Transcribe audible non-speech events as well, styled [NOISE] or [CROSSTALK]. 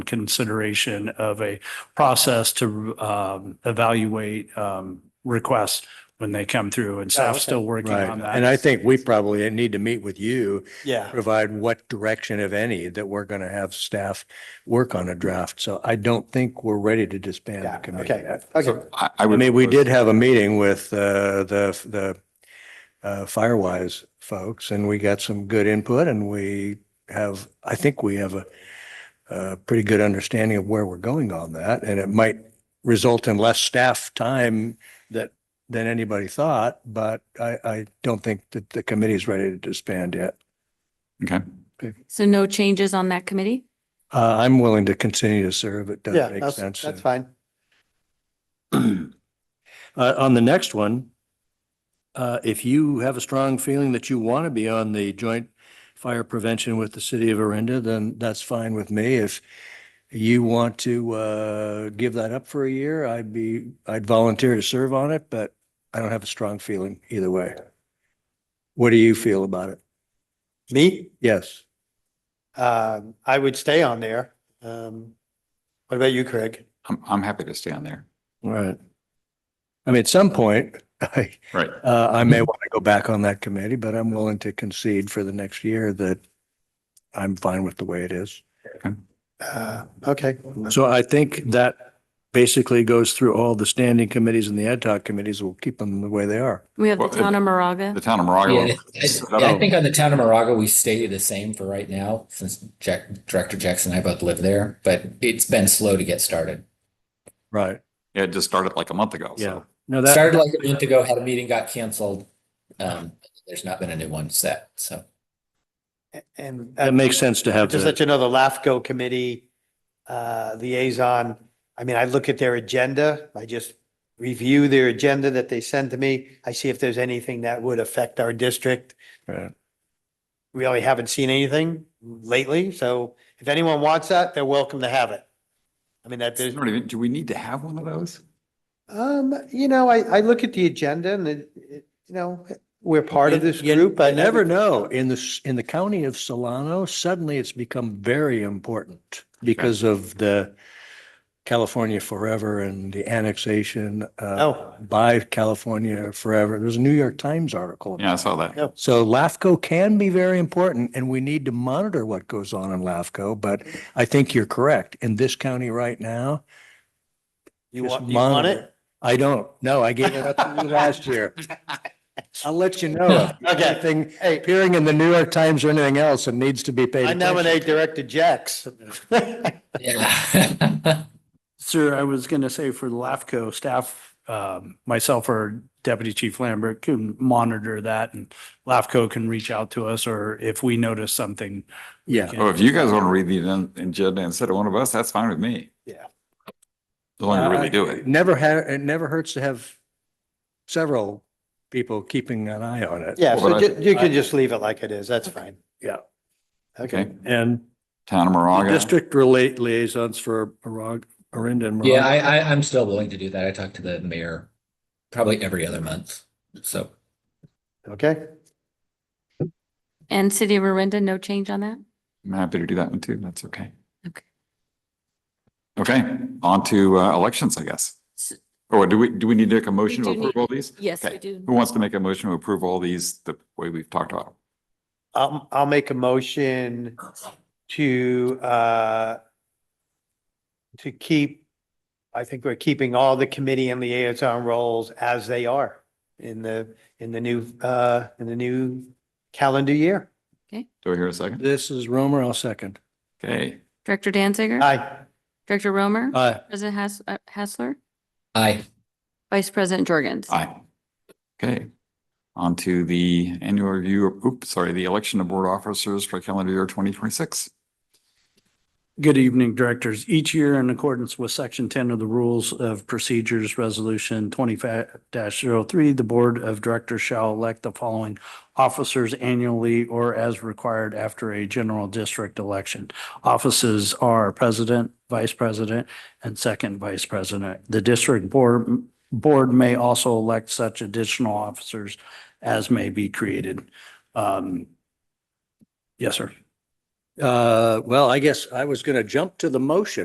consideration of a process to um, evaluate um, requests when they come through and staff's okay. still working Right. on that. And I think we probably need to meet with you, Yeah. provide what direction, if any, that we're going to have staff work on a draft. So I don't think we're ready to disband the Yeah, committee. okay, Uh, I- okay. I, I I would. mean, we propose- did have a meeting with uh, the, the uh, Firewise folks and we got some good input and we have, I think we have a, a pretty good understanding of where we're going on that. And it might result in less staff time that, than anybody thought, but I, I don't think that the committee's ready to disband yet. Okay. So no changes on that committee? Uh, I'm willing to continue to serve. It Yeah, does make that's, sense. that's fine. Uh, on the next one, uh, if you have a strong feeling that you want to be on the joint fire prevention with the city of Arinda, then that's fine with me. If you want to, uh, give that up for a year, I'd be, I'd volunteer to serve on it, but I don't have a strong feeling either way. What do you feel about it? Me, Yes. um, I would stay on there. Um, what about you, Craig? I'm, I'm happy to stay on there. All Right. I mean, at some point, [LAUGHS] I, Right. Uh, [LAUGHS] I may want to go back on that committee, but I'm willing to concede for the next year that I'm fine with the way it is. Uh, okay. So I think that basically goes through all the standing committees and the ad hoc committees. We'll keep them the way they are. We have the Well, town of The Moraga. town of Moraga. Yeah, I- I, I think on the town of Moraga, we stay the same for right now, since Jack, Director Jackson and I both live there, but it's been slow to get started. Right. Yeah, It just started like a month ago. Yeah. So No, that, Started like a month ago, had a meeting, got canceled. Um, there's not been a new one set, so. And. that makes sense to have Just that. let you know, the LAFCO committee uh, liaison, I mean, I look at their agenda. I just review their agenda that they send to me. I see if there's anything that would affect our district. Right. Really haven't seen anything lately, so if anyone wants that, they're welcome to have it. I mean, that there's there's, not even, do we need to have one of those? um, you know, I, I look at the agenda and it, it- you know, we're part of You- this group. I never know. In the, s- in the county of Solano, suddenly it's become very important because of the California Forever and the annexation. uh, Oh, by California forever. There's a New York Times article. Yeah, I saw that. Yeah. So LAFCO can be very important and we need to monitor what goes on in LAFCO, but I think you're correct. In this county right now, you Just want, you want monitor. it? I don't, no, I gave it up to you last year. I'll let you know. if Okay. Anything Hey, appearing in the New York Times or anything else that needs to be paid I attention. nominate Director Jax. Yeah. Sir, I was going to say for LAFCO staff, um, myself or Deputy Chief Lambert can monitor that and LAFCO can reach out to us or if we notice something. Yeah, Oh, if you guys want to read the event agenda instead of one of us, that's fine with me. Yeah. As long as we really do it. never had, Uh, it never hurts to have several people keeping an eye on it. [LAUGHS] Yeah, Well, so but I- ju- you can just leave it like it is. That's fine. Yeah. Okay. Okay. And Town of The Moraga. District relate liaisons for Arag, Arinda and. Yeah, I, Moraga. I, I'm still willing to do that. I talk to the mayor probably every other month, so. Okay. And City of Arinda, no change on that? I'm happy to do that one too. That's okay. Okay. Okay, on to uh, elections, I guess. S- Or do we, do we need to make a motion to do need- approve all these? Yes, Okay. we do. Who wants to make a motion to approve all these the way we've talked about? them? I'll, I'll make a motion to, uh, to keep, I think we're keeping all the committee and liaison roles as they are in the, in the new, uh, in the new calendar year. Do I hear a second? This is Romer, I'll second. Okay, Director Danziger? Aye. Director Romer? Aye. President Has- uh, Hassler? I, Vice President Jorgens? aye. Okay. On to the annual review, of- oops, sorry, the election of board officers for calendar year twenty twenty-six. Good evening, Directors. Each year, in accordance with Section 10 of the Rules of Procedures, Resolution 20-03, the Board of Directors shall elect the following officers annually or as required after a general district election. Offices are President, Vice President, and Second Vice President. The District Board, Board may also elect such additional officers as may be created. Um, Yes, sir. Uh, well, I guess I was going to jump to the motion.